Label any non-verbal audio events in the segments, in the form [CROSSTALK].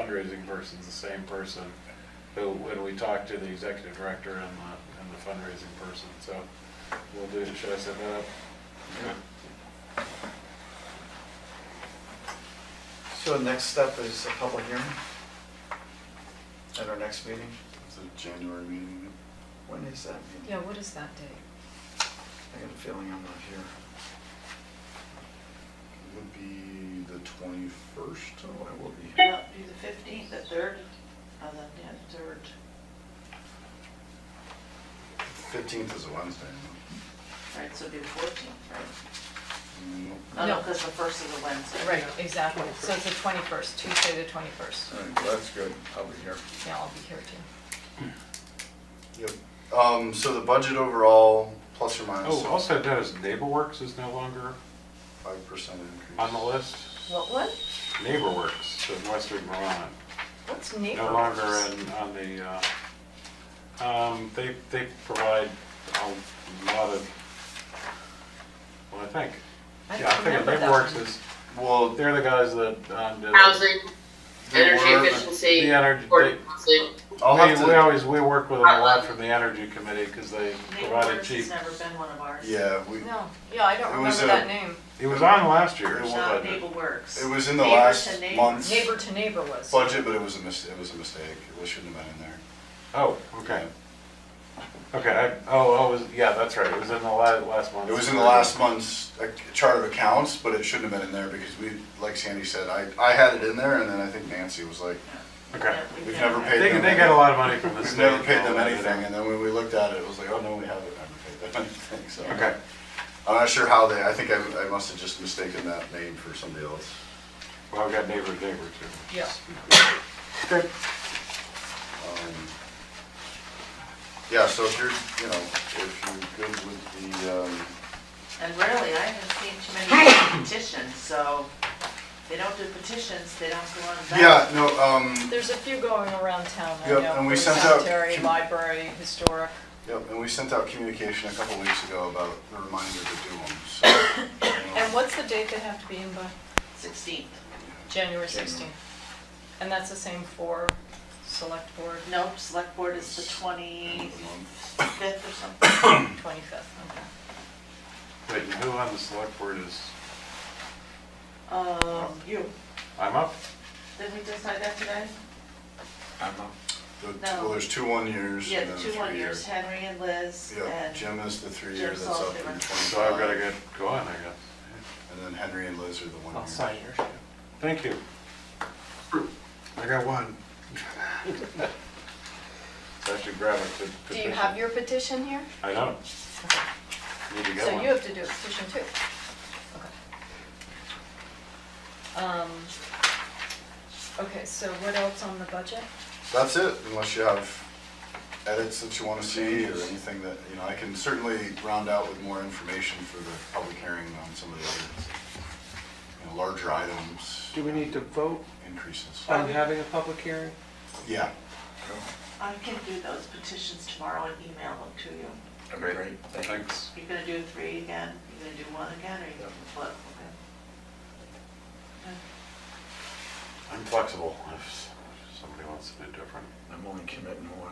fundraising person's the same person who, when we talk to the executive director and the, and the fundraising person, so we'll do, should I set that up? So the next step is a public hearing at our next meeting. It's a January meeting. When is that meeting? Yeah, what is that date? I got a feeling I'm not here. It would be the twenty-first. So Oh, I will be here. Yeah, do the fifteenth, the third, and then, yeah, the third. Fifteenth is a Wednesday. huh? Right, so do the fourteenth, right? Mm, Oh, No, No. because the first is a Wednesday. Right, exactly. So it's the twenty-first, Tuesday the twenty-first. All right, well, that's good. I'll be here. Yeah, I'll be here too. Yep. Um, so the budget overall, plus or minus Oh, also notice NeighborWorks is no longer five percent increase. on the list. What, what? NeighborWorks of Western Vermont, What's no longer in, on the, uh, um, they, they provide a lot of, well, I think. I Yeah, I think remember that NeighborWorks one. is, Well, they're the guys that, um, did. housing, they energy were- efficiency, The energy- affordable housing. I'll We, have we to, always, we work with them a lot from the energy committee because they provided Neighborhoods cheap. has never been one of ours. yeah, we, No, yeah, I don't It was remember a- that name. It was on last year's It Not budget. Naval Works. it was in the Neighbor to last neighbor. month's Neighbor to neighbor was. budget, but it was a mis, it was a mistake. It shouldn't have been in there. Oh, okay. Okay, I, oh, oh, it was, yeah, that's right. It was in the la- last month. It was in the last month's uh, chart of accounts, but it shouldn't have been in there because we, like Sandy said, I, I had it in there and then I think Nancy was like, Okay. Yeah, We've never They, paid they them. get a lot of money from the We've state. never paid them and all that, anything, and then when we looked at it, it was like, oh, no, we haven't ever paid them [LAUGHS] anything, so. Okay. I'm not sure how they, I think I, I must have just mistaken that name for somebody else. Well, I've got neighbor, neighbor too. Yeah. Good. Um, Yeah, so if you're, you know, if you're good with the, um, And rarely, I haven't seen too many petitions, so they don't do petitions, they don't go on the yeah, no, um, There's a few going around town, I know. Yep, and we for sent out Cemetery, com- library, historic. yep, and we sent out communication a couple weeks ago about the reminder to do them, [COUGHS] so. you know, And what's the date they have to be in by? Sixteenth. January January. sixteenth. And that's the same for select board, Nope, select board is the twenty-fifth month. or something. twenty-fifth, okay. Wait, and who on the select board is, Um, you, I'm up? did we decide that today? I'm up. The- No. Well, there's two one years Yeah, and the then a two three one year. years, Henry and Liz Yeah, and. Jim is the three year Jim's that's up also in different. twenty-five. So I've got to get Oh, going, I guess. And then Henry and Liz are the one year. Thank you. I got one. [LAUGHS] So I should grab a petition. Do you have your petition here? I don't. Need to get So one. you have to do a petition too? Okay. Um, Okay, so what else on the budget? That's it, unless you have edits that you wanna see or anything that, you know, I can certainly round out with more information for the public hearing on some of the other, you know, larger items, Do we need to vote increases. Um, on having a public hearing? Yeah. I can do those petitions tomorrow and email them to you. Great, thanks. You're gonna do three again, you're gonna do one again, or you gonna flip, okay? I'm flexible if somebody wants to do different. I'm only committing one.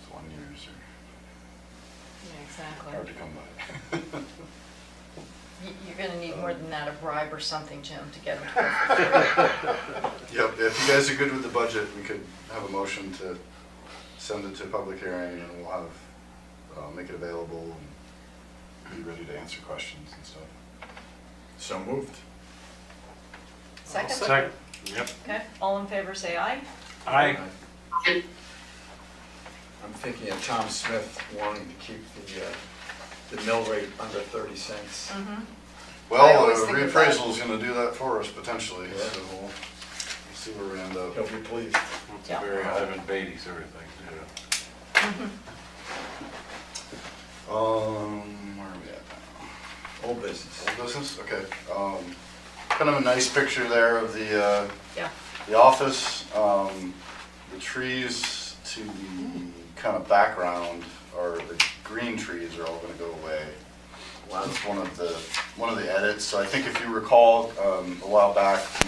It's one years are Yeah, exactly. hard to come by. You're gonna need more than that, a bribe or something, Jim, to get them to. Yep, if you guys are good with the budget, we could have a motion to send it to public hearing and we'll have, uh, make it available and be ready to answer questions and stuff. So moved. [LAUGHS] Second? Second, yep. Okay, all in favor, say aye. I, I'm thinking of Tom Smith wanting to keep the, uh, the mill rate under thirty cents. I Well, always uh, think of that. reappraisal's gonna do that for us potentially, Yeah. so we'll see where we end He'll up. be pleased. it's Yeah. very Ivan Beatty sort of thing, you know. Um, where are we at Old business. now? Old business, okay. Um, kind of a nice picture there of the, uh, Yeah. the office. Um, the trees to the kind of background are, the green trees are all gonna go away. That's one of the, one of the edits. So I think if you recall, um, a while back,